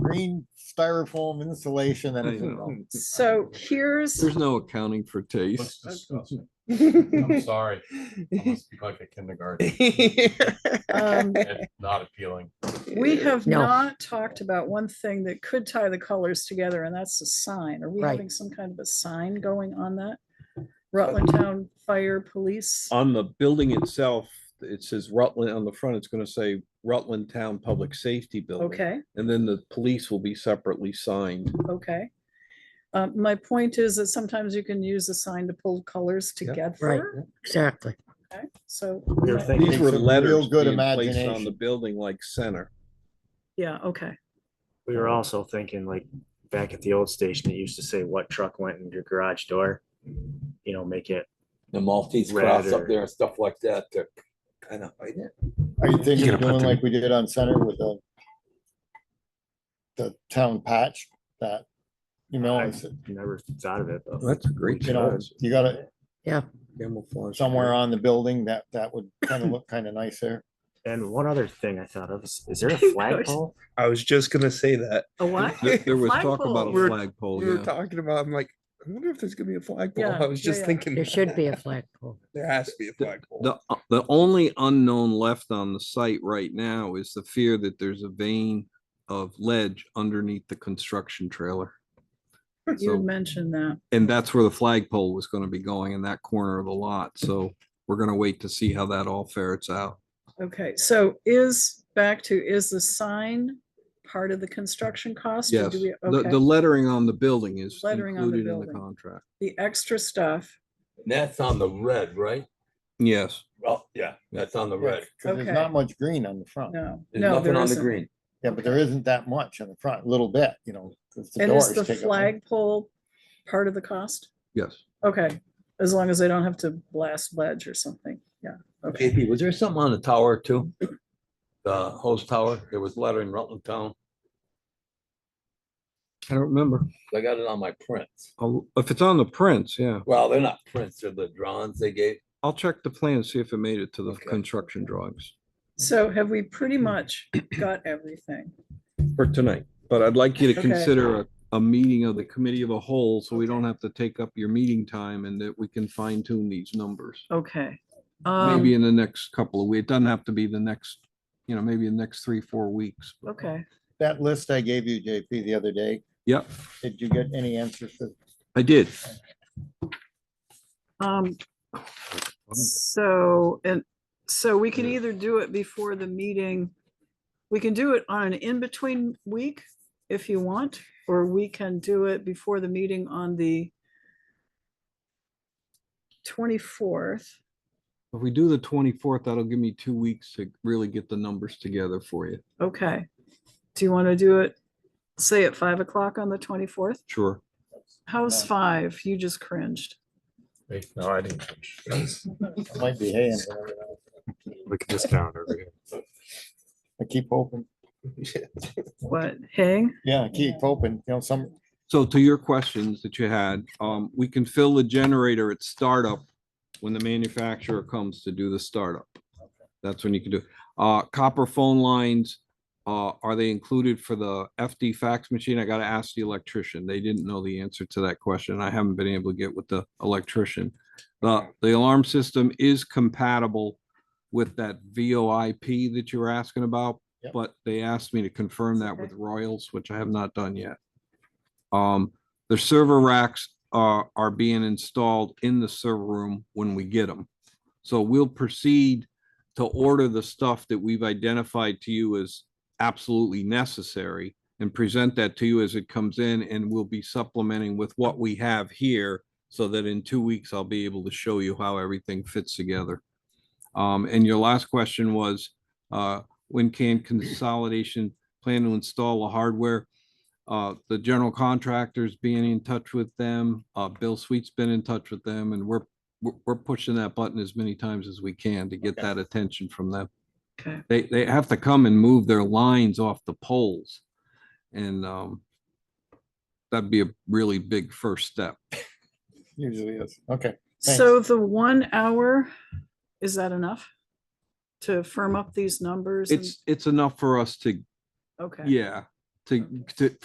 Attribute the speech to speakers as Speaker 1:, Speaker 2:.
Speaker 1: green styrofoam insulation and anything else.
Speaker 2: So here's,
Speaker 3: There's no accounting for
Speaker 4: Looks
Speaker 3: taste.
Speaker 4: disgusting. I'm
Speaker 2: um,
Speaker 4: sorry. I must be like a kindergarten. It's not appealing.
Speaker 2: um, we have
Speaker 5: No.
Speaker 2: not talked about one thing that could tie the colors together and that's the sign. Are we
Speaker 5: Right.
Speaker 2: having some kind of a sign going on that? Rutland Town Fire Police?
Speaker 6: on the building itself, it says Rutland on the front, it's gonna say Rutland Town Public Safety Building.
Speaker 2: Okay,
Speaker 6: And then the police will be separately signed.
Speaker 2: okay. Uh, my point is that sometimes you can use a sign to pull colors
Speaker 6: Yeah.
Speaker 2: together.
Speaker 5: Exactly.
Speaker 2: Okay, So,
Speaker 1: You're
Speaker 2: yeah,
Speaker 1: thinking
Speaker 6: These were
Speaker 1: some real
Speaker 6: letters
Speaker 1: Good
Speaker 6: being placed on the
Speaker 1: imagination.
Speaker 6: building like center.
Speaker 2: yeah, okay.
Speaker 7: We were also thinking like back at the old station, it used to say what truck went in your garage door. You know, make it,
Speaker 8: the Maltese
Speaker 7: Red
Speaker 8: cross up
Speaker 7: or-
Speaker 8: there and stuff like that to kind of hide it.
Speaker 1: Are you thinking
Speaker 4: gonna
Speaker 1: of doing
Speaker 4: put the-
Speaker 1: like we did on center with the the town patch that, you know,
Speaker 7: I-
Speaker 1: it's-
Speaker 7: never thought of it, but
Speaker 6: That's a great
Speaker 1: you know,
Speaker 6: choice.
Speaker 1: you got it
Speaker 6: Camouflage.
Speaker 1: somewhere on the building that that would kind of look kind of nice there.
Speaker 7: and one other thing I thought of is, is there a flagpole?
Speaker 9: I was just gonna say that.
Speaker 2: A what?
Speaker 6: There there was talk about
Speaker 2: Flagpole.
Speaker 6: a
Speaker 9: We're-
Speaker 6: flagpole,
Speaker 9: We were
Speaker 6: Oh, yeah.
Speaker 9: talking about, I'm like, I wonder if there's gonna be a flagpole.
Speaker 2: Yeah,
Speaker 9: I was
Speaker 2: yeah,
Speaker 9: just
Speaker 2: yeah.
Speaker 9: thinking.
Speaker 5: There should be a flagpole.
Speaker 9: There has to be a flagpole.
Speaker 6: The, uh, the only unknown left on the site right now is the fear that there's a vein of ledge underneath the construction trailer.
Speaker 2: You
Speaker 6: So-
Speaker 2: had mentioned that.
Speaker 6: And that's where the flagpole was gonna be going in that corner of the lot, so we're gonna wait to see how that all ferrets out.
Speaker 2: Okay, so is, back to, is the sign part of the construction cost? or
Speaker 6: Yes,
Speaker 2: do we-
Speaker 6: the, the
Speaker 2: okay,
Speaker 6: lettering on the building is
Speaker 2: Lettering on the
Speaker 6: included in the
Speaker 2: building.
Speaker 6: contract.
Speaker 2: The extra stuff,
Speaker 8: And that's on the red, right?
Speaker 6: Yes,
Speaker 8: Well, yeah, that's on the red.
Speaker 1: 'Cause there's
Speaker 2: Okay.
Speaker 1: not much green on the front.
Speaker 2: no,
Speaker 8: There's
Speaker 2: no,
Speaker 8: nothing
Speaker 2: there
Speaker 8: on the
Speaker 2: isn't.
Speaker 8: green.
Speaker 1: Yeah, but there isn't that much on the front, a little bit, you know. 'cause the
Speaker 2: And is
Speaker 1: doors
Speaker 2: the
Speaker 1: take up-
Speaker 2: flagpole part of the cost?
Speaker 6: yes.
Speaker 2: Okay, as long as they don't have to blast ledge or something, yeah, okay.
Speaker 8: JP, was there something on the tower too? The hose tower, there was lettering Rutland Town.
Speaker 6: I don't remember.
Speaker 8: I got it on my prints.
Speaker 6: I'll- If it's on the prints, yeah.
Speaker 8: Well, they're not prints, they're the drawings they gave.
Speaker 6: I'll check the plan, see if it made it to the
Speaker 8: Okay.
Speaker 6: construction drawings
Speaker 2: So have we pretty much got everything?
Speaker 6: for tonight. But I'd like you to
Speaker 2: Okay.
Speaker 6: consider a, a meeting of the committee of a whole, so we don't have to take up your meeting time and that we can fine tune these numbers.
Speaker 2: Okay.
Speaker 6: Maybe
Speaker 2: Um,
Speaker 6: in the next couple of weeks. It doesn't have to be the next, you know, maybe the next three, four weeks.
Speaker 2: okay,
Speaker 1: That list I gave you, JP, the other day,
Speaker 6: Yep,
Speaker 1: did you get any answers to
Speaker 6: I did.
Speaker 2: um, so, and, so we can either do it before the meeting. We can do it on an in-between week if you want, or we can do it before the meeting on the twenty-fourth.
Speaker 6: If we do the twenty-fourth, that'll give me two weeks to really get the numbers together for you.
Speaker 2: Okay. Do you want to do it, say at five o'clock on the twenty-fourth?
Speaker 6: Sure.
Speaker 2: How's five? You just cringed.
Speaker 4: Wait, No, I didn't. finish.
Speaker 1: It Might be hay. in there.
Speaker 7: Look at this calendar over here.
Speaker 1: I keep hoping,
Speaker 2: What, hey?
Speaker 1: yeah, I keep hoping, you know, some,
Speaker 6: So to your questions that you had, um, we can fill the generator at startup when the manufacturer comes to do the startup. That's when you can do, it. uh, copper phone lines, uh, are they included for the FD fax machine? I gotta ask the electrician. They didn't know the answer to that question. I haven't been able to get with the electrician. The, the alarm system is compatible with that VoIP that you were asking about.
Speaker 1: Yep.
Speaker 6: But they asked me to confirm that with Royals, which I have not done yet. Um, the server racks are, are being installed in the server room when we get them. So we'll proceed to order the stuff that we've identified to you as absolutely necessary and present that to you as it comes in and we'll be supplementing with what we have here so that in two weeks I'll be able to show you how everything fits together. Um, and your last question was, uh, when can consolidation plan to install a hardware? Uh, the general contractors being in touch with them, uh, Bill Sweet's been in touch with them and we're, we're, we're pushing that button as many times as we can to get
Speaker 1: Okay.
Speaker 6: that attention from them.
Speaker 2: Okay.
Speaker 6: They, they have to come and move their lines off the poles. And, um, that'd be a really big first step.
Speaker 1: usually is, okay. Thanks.
Speaker 2: So the one hour, is that enough? To firm up these numbers? and-
Speaker 6: It's, it's enough for us to,
Speaker 2: Okay.
Speaker 6: yeah, to, to,